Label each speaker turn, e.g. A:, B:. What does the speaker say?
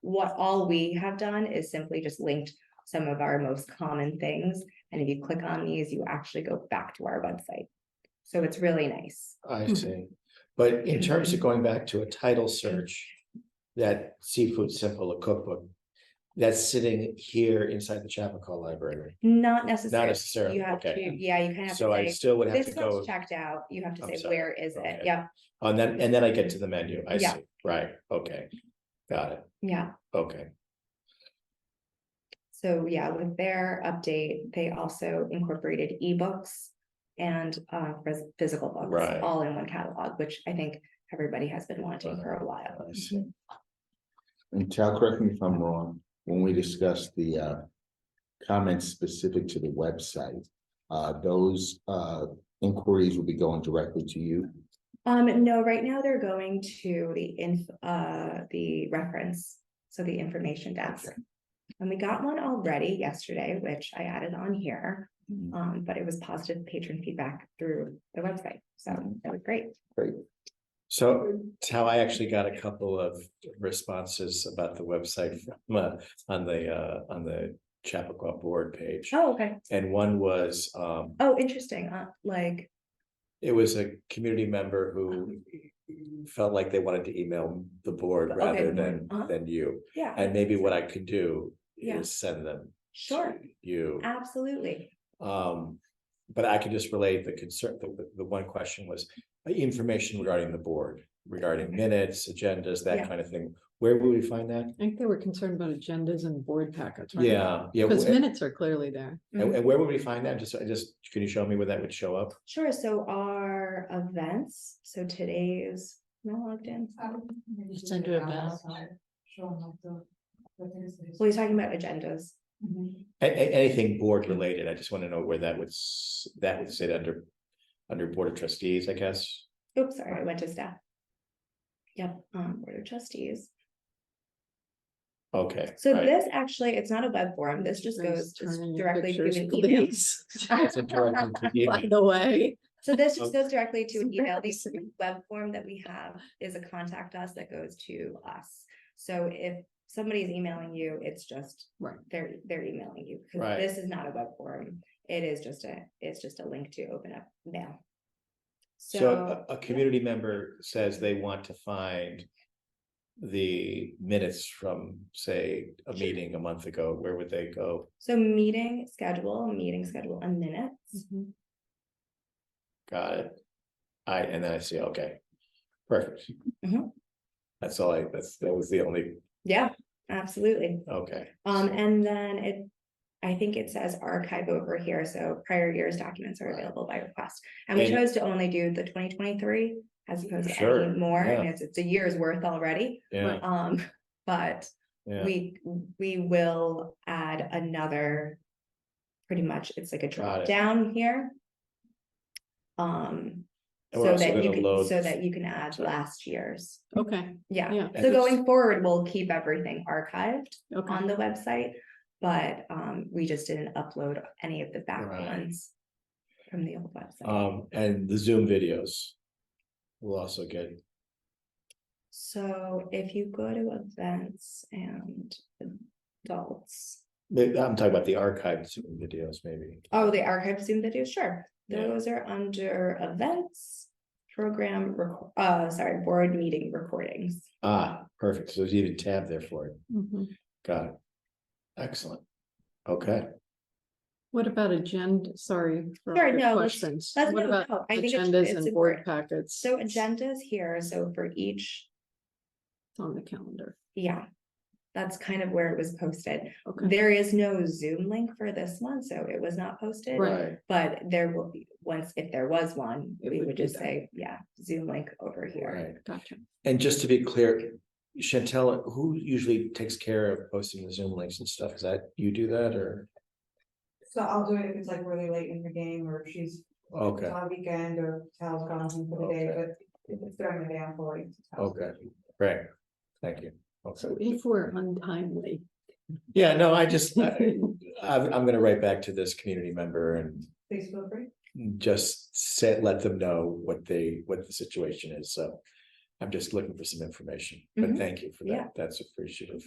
A: what all we have done is simply just linked some of our most common things. And if you click on these, you actually go back to our website. So it's really nice.
B: I
C: Mhm.
B: see. But in terms
A: Mm-hmm.
B: of going back to a title search, that seafood simple a cookbook, that's sitting here inside the Chappaqua Library.
A: Not necessarily.
B: necessarily,
A: You have
B: okay.
A: to, yeah, you kind of
B: So
A: have
B: I
A: to say,
B: still would have to
A: this
B: go
A: one's checked out. You have to
B: I'm
A: say,
B: sorry.
A: where is it?
B: Okay.
A: Yeah,
B: on that, and then I get to the menu. I
A: Yeah.
B: see. Right, okay. Got it.
A: yeah.
B: Okay.
A: So yeah, with their update, they also incorporated ebooks and uh phys- physical books
B: Right.
A: all in one catalog, which I think everybody has been wanting for a while.
B: I see.
D: And Tal, correct me if I'm wrong, when we discussed the uh. Comments specific to the website, uh, those uh inquiries will be going directly to you.
A: Um, no, right now they're going to the inf- uh, the reference, so the information desk. And we got one already yesterday, which I added on here,
D: Mhm.
A: um, but it was positive patron feedback through the website, so
D: Mm-hmm.
A: that was great.
B: So it's how I actually got a couple of responses about the website from, uh, on the, uh, on the Chappaqua board page.
A: Oh, okay.
B: And one was, um,
A: Oh, interesting, uh, like,
B: It was a community member who felt like they wanted to email the board
A: Okay,
B: rather
A: the
B: than,
A: board, uh-huh.
B: than you.
A: yeah,
B: And maybe what I could do
A: Yeah.
B: is send them.
A: sure,
B: to You,
A: absolutely.
B: um, but I could just relate the concern, the, the one question was uh, information regarding the board, regarding minutes, agendas,
A: Yeah.
B: that kind of thing. Where would we find that?
C: I think they were concerned about agendas and board packets. right?
B: Yeah, yeah.
C: Because
B: wh-
C: minutes are clearly there.
B: And, and where would we find that? Just, I just, can you show me where that would show up?
A: Sure, so our events, so today's, no, I logged in.
E: It's
C: under a bus.
A: Well, he's talking about agendas.
B: A- a- anything board related, I just want to know where that would, s- that would sit under, under Board of Trustees, I guess.
A: Oops, sorry, I went to staff. Yep, um, Board of Trustees.
B: Okay.
A: So
B: right.
A: this actually, it's not a web form. This just goes
C: Nice
A: just
C: turning your
A: directly to
C: pictures,
A: an email.
C: please.
B: It's a direct to the
C: By
B: email.
C: the way.
A: So this just
C: Oh.
A: goes directly to
C: It's
A: an email. The
C: embarrassing.
A: web form that we have is a contact us that goes to us. So if somebody's emailing you, it's just.
C: Right.
A: They're, they're emailing you. 'cause
B: Right.
A: This is not a web form. It is just a, it's just a link to open up mail. So,
B: So uh, a, a community member says they want to find the minutes from, say, a meeting a month ago, where would they go?
A: so meeting schedule, meeting schedule and minutes.
C: Mhm.
B: Got it. I, and then I see, okay, perfect.
A: Mhm.
B: That's all I, that's, that was the only,
A: Yeah, absolutely.
B: okay,
A: Um, and then it, I think it says archive over here, so prior year's documents are available by request. And we
B: And-
A: chose to only do the twenty twenty-three as opposed to
B: Sure,
A: any more,
B: yeah.
A: and it's, it's a year's worth already.
B: yeah,
A: Um, but
B: yeah.
A: we, we will add another. Pretty much, it's like a drop
B: it.
A: down here. Um,
B: And we're
A: so
B: also
A: that you
B: gonna
A: can,
B: load-
A: so that you can add last year's,
C: Okay,
A: yeah.
C: yeah,
B: And
A: So
B: it's-
A: going forward, we'll keep everything archived
C: okay.
A: on the website, but um, we just didn't upload any of the back
B: Right.
A: ones from the old website.
B: Um, and the Zoom videos. Will also get,
A: So if you go to events and adults,
B: I'm talking about the archived Zoom videos, maybe.
A: oh, the archive Zoom videos, sure.
B: Yeah.
A: Those are under events, program, rec- uh, sorry, board meeting recordings.
B: Ah, perfect. So there's even a tab there for it.
C: Mhm.
B: Got it. Excellent. Okay,
C: What about agenda, sorry. for
A: Sure,
C: all your
A: no, let's-
C: Questions.
A: let's
C: What
A: go-
C: about
A: no, I think it's-
C: agendas
A: it's
C: and board
A: important.
C: packets?
A: So agendas here, so for each,
C: It's On the calendar,
A: yeah, that's kind of where it was posted.
C: okay.
A: There is no Zoom link for this one, so it was not posted.
C: Right.
B: right.
A: But there will be, once, if there was one,
C: It
A: we
C: would
A: would
C: be
A: just
C: that.
A: say, yeah, Zoom link over here.
B: Right.
C: Gotcha.
B: And just to be clear, Chantel, who usually takes care of posting the Zoom links and stuff? Is that you do that or?
E: So I'll do it if it's like really late in the game or if she's it's
B: Okay,
E: on a weekend or Tal's gone home for the day,
B: Okay.
E: but if it's during the day, I'm forwarding to Tal.
B: okay, right. Thank you. Okay.
C: So E if we're untimely.
B: Yeah, no, I just, I, I'm, I'm gonna write back to this community member and
E: Please feel free.
B: just say, let them know what they, what the situation is, so. I'm just looking for some information, but
A: Mhm.
B: thank you for
A: Yeah.
B: that, that's appreciative,